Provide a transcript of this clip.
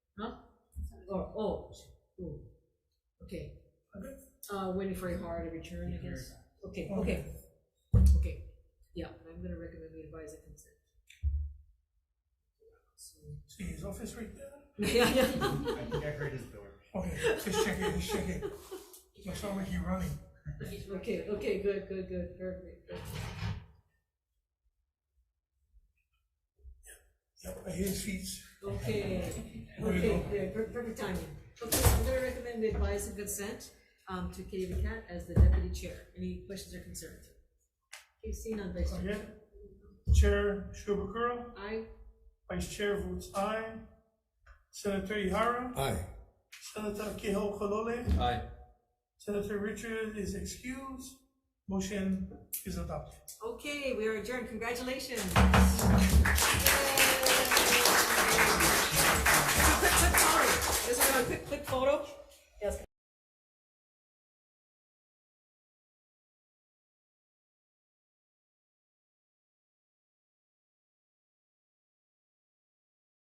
or old, ooh, Oh, okay. Uh, waiting for a hard return, I guess, okay, okay, okay, yeah, I'm gonna recommend we advise a consent. So- See his office right there? Yeah, yeah. I think I heard his door. Okay, just check it, just check it. That's sound like you're running. Okay, okay, good, good, good, perfect. Yep, I hear his feet. Okay, There you okay, go. yeah, per- perfect timing. Okay, I'm gonna recommend we advise and consent, um, to Katie Cat as the deputy chair. Any questions or concerns? Okay, seeing none, Vice Chair. Okay. Oh, Chair Shubakura, Aye, Vice Chair votes aye. Senator Ihara, Aye. Senator Kehoe Kalole, Aye. Senator Richard is excused. Motion is adopted. okay, we are adjourned, congratulations. Yay.